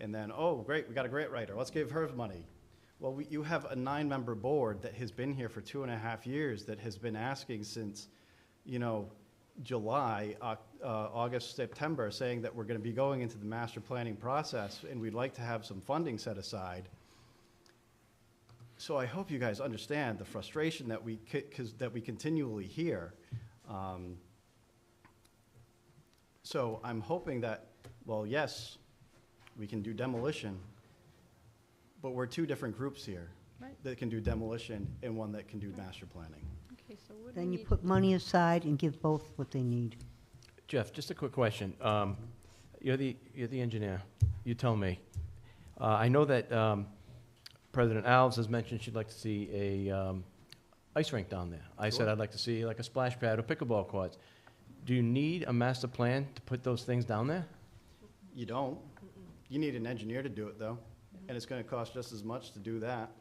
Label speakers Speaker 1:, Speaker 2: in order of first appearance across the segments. Speaker 1: and then, oh, great, we got a grant writer, let's give her money. Well, we- you have a nine-member board that has been here for two and a half years, that has been asking since, you know, July, Oc- uh, August, September, saying that we're going to be going into the master planning process, and we'd like to have some funding set aside. So I hope you guys understand the frustration that we, c- 'cause- that we continually hear. Um, So I'm hoping that, well, yes, we can do demolition, but we're two different groups here.
Speaker 2: Right.
Speaker 1: That can do demolition and one that can do master planning.
Speaker 2: Okay, so what do we
Speaker 3: Then you
Speaker 2: need?
Speaker 3: put money aside and give both what they need.
Speaker 4: Jeff, just a quick question. Um, You're the, you're the engineer. You tell me. Uh, I know that um, President Alves has mentioned she'd like to see a um, ice rink down there. I said
Speaker 1: Sure.
Speaker 4: I'd like to see like a splash pad or pickleball courts. Do you need a master plan to put those things down there?
Speaker 1: You don't. You need an engineer to do it, though, and it's gonna cost just as much to do that.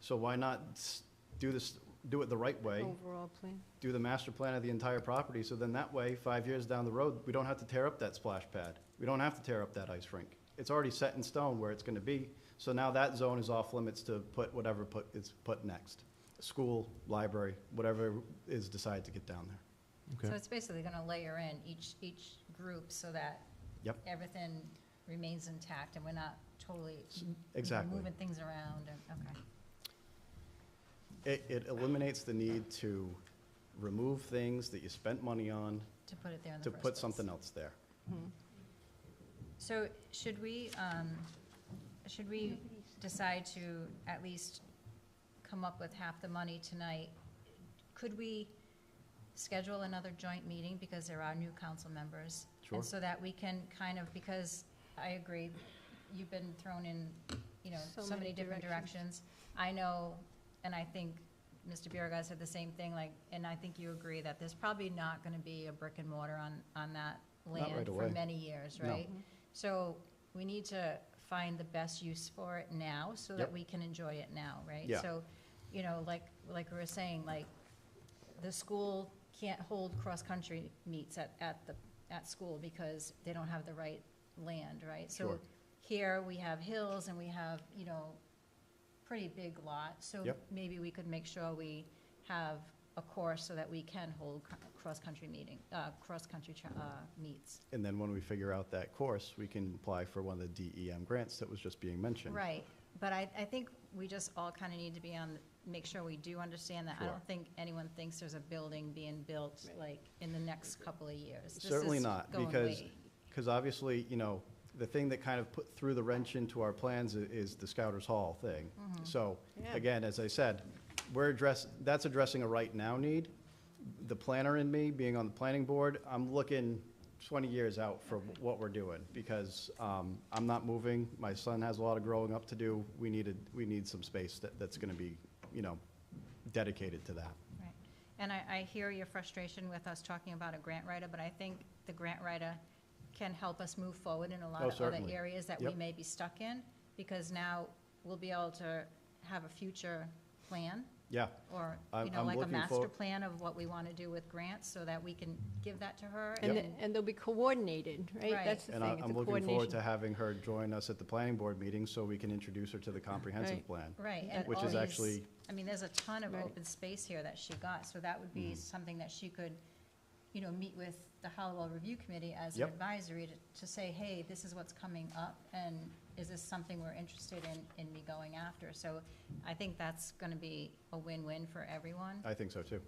Speaker 1: So why not s- do this, do it the right way?
Speaker 2: Overall plan.
Speaker 1: do the master plan of the entire property, so then that way, five years down the road, we don't have to tear up that splash pad. We don't have to tear up that ice rink. It's already set in stone where it's gonna be, so now that zone is off limits to put whatever put, is put next. School, library, whatever is decided to get down there.
Speaker 5: So it's basically going to layer in each, each group so that
Speaker 1: Yep.
Speaker 5: everything remains intact and we're not totally
Speaker 1: S-
Speaker 5: m-
Speaker 1: exactly.
Speaker 5: moving things around and, okay.
Speaker 1: It, it eliminates the need to remove things that you spent money on
Speaker 5: To put it there in the
Speaker 1: to
Speaker 5: first place.
Speaker 1: put something else there.
Speaker 5: So should we, um, should we decide to at least come up with half the money tonight? Could we schedule another joint meeting because there are new council members?
Speaker 1: Sure.
Speaker 5: And so that we can kind of, because I agree, you've been thrown in, you know,
Speaker 2: So
Speaker 5: so
Speaker 2: many
Speaker 5: many different
Speaker 2: directions.
Speaker 5: directions. I know, and I think Mr. Biragad said the same thing, like, and I think you agree that there's probably not gonna be a brick and mortar on, on that
Speaker 1: Not right
Speaker 5: land for
Speaker 1: away.
Speaker 5: many years,
Speaker 1: No.
Speaker 5: right? So we need to find the best use for it now so that
Speaker 1: Yep.
Speaker 5: we can enjoy it now, right?
Speaker 1: Yeah.
Speaker 5: So, you know, like, like we were saying, like, the school can't hold cross-country meets at, at the, at school because they don't have the right land, right? So
Speaker 1: Sure.
Speaker 5: Here, we have hills and we have, you know, pretty big lot, so
Speaker 1: Yep.
Speaker 5: maybe we could make sure we have a course so that we can hold cr- cross-country meeting, uh, cross-country, tra- uh, meets.
Speaker 1: And then when we figure out that course, we can apply for one of the DEM grants that was just being mentioned.
Speaker 5: Right, but I, I think we just all kind of need to be on, make sure we do understand that. I
Speaker 1: Sure.
Speaker 5: don't think anyone thinks there's a building being built, like, in the next couple of years. This
Speaker 1: Certainly
Speaker 5: is
Speaker 1: not,
Speaker 5: going
Speaker 1: because,
Speaker 5: way-
Speaker 1: because obviously, you know, the thing that kind of put, threw the wrench into our plans i- is the Scouters Hall thing.
Speaker 5: Mm-hmm.
Speaker 1: So,
Speaker 2: Yeah.
Speaker 1: again, as I said, we're address, that's addressing a right now need. The planner in me, being on the planning board, I'm looking twenty years out for
Speaker 5: Mm-hmm.
Speaker 1: what we're doing, because, um, I'm not moving, my son has a lot of growing up to do, we needed, we need some space that, that's gonna be, you know, dedicated to that.
Speaker 5: Right, And I, I hear your frustration with us talking about a grant writer, but I think the grant writer can help us move forward in a lot
Speaker 1: Oh,
Speaker 5: of other
Speaker 1: certainly.
Speaker 5: areas that we
Speaker 1: Yep.
Speaker 5: may be stuck in, because now we'll be able to have a future plan,
Speaker 1: Yeah,
Speaker 5: or,
Speaker 1: I'm-
Speaker 5: you know,
Speaker 1: I'm
Speaker 5: like a
Speaker 1: looking
Speaker 5: master
Speaker 1: forward-
Speaker 5: plan of what we want to do with grants, so that we can give that to her.
Speaker 2: And,
Speaker 1: Yep.
Speaker 2: th- and they'll be coordinated, right?
Speaker 5: Right.
Speaker 2: That's the
Speaker 1: and I-
Speaker 2: thing, it's a
Speaker 1: I'm looking forward
Speaker 2: coordination.
Speaker 1: to having her join us at the planning board meeting, so we can introduce her to the comprehensive
Speaker 2: Right.
Speaker 1: plan.
Speaker 5: Right, and
Speaker 1: Which
Speaker 5: all
Speaker 1: is
Speaker 5: these-
Speaker 1: actually-
Speaker 5: I mean, there's a ton of
Speaker 2: Right.
Speaker 5: open space here that she got, so that would
Speaker 1: Mm-hmm.
Speaker 5: be something that she could, you know, meet with the Hallowell Review Committee as an
Speaker 1: Yep.
Speaker 5: advisory to, to say, hey, this is what's coming up, and is this something we're interested in, in me going after? So I think that's gonna be a win-win for everyone.
Speaker 1: I think so, too.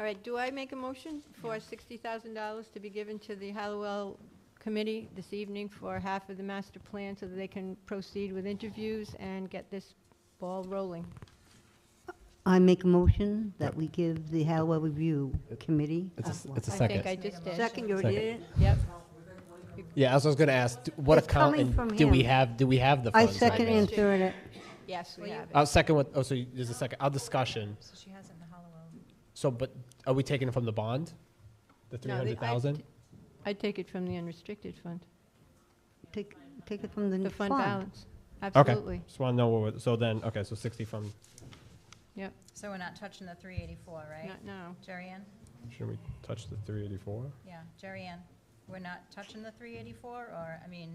Speaker 2: All right, do I make a motion for sixty thousand dollars to be given to the Hallowell Committee this evening for half of the master plan so that they can proceed with interviews and get this ball rolling?
Speaker 3: I make a motion that we give the Hallwell Review Committee.
Speaker 6: It's a, it's a
Speaker 2: I think I
Speaker 6: second.
Speaker 2: just did.
Speaker 3: Second, you already did it?
Speaker 2: Yep,
Speaker 6: Yeah, as I was gonna ask, d- what
Speaker 3: It's
Speaker 6: account,
Speaker 3: coming
Speaker 6: and
Speaker 3: from
Speaker 6: do we
Speaker 3: him.
Speaker 6: have, do we have the
Speaker 3: I
Speaker 6: funds? right
Speaker 3: second
Speaker 6: now?
Speaker 3: and third it.
Speaker 2: yes, we
Speaker 5: Well, you-
Speaker 2: have it.
Speaker 6: I'll second with, oh, so you- there's a second, I'll discussion.
Speaker 5: So she has it in the Hallowell.
Speaker 6: So, but are we taking it from the bond? The three
Speaker 2: No, they- I-
Speaker 6: hundred thousand?
Speaker 2: I'd take it from the unrestricted fund,
Speaker 3: Take, take it from the
Speaker 2: the
Speaker 3: new
Speaker 2: fund
Speaker 3: fund.
Speaker 2: balance,
Speaker 6: Okay,
Speaker 2: absolutely,
Speaker 6: just wanna know what, we're- so then, okay, so sixty from,
Speaker 2: yep,
Speaker 5: So we're not touching the three eighty-four, right?
Speaker 2: not now.
Speaker 5: Jerry Ann?
Speaker 6: should we touch the three eighty-four?
Speaker 5: Yeah, Jerry Ann, we're not touching the three eighty-four, or, I mean,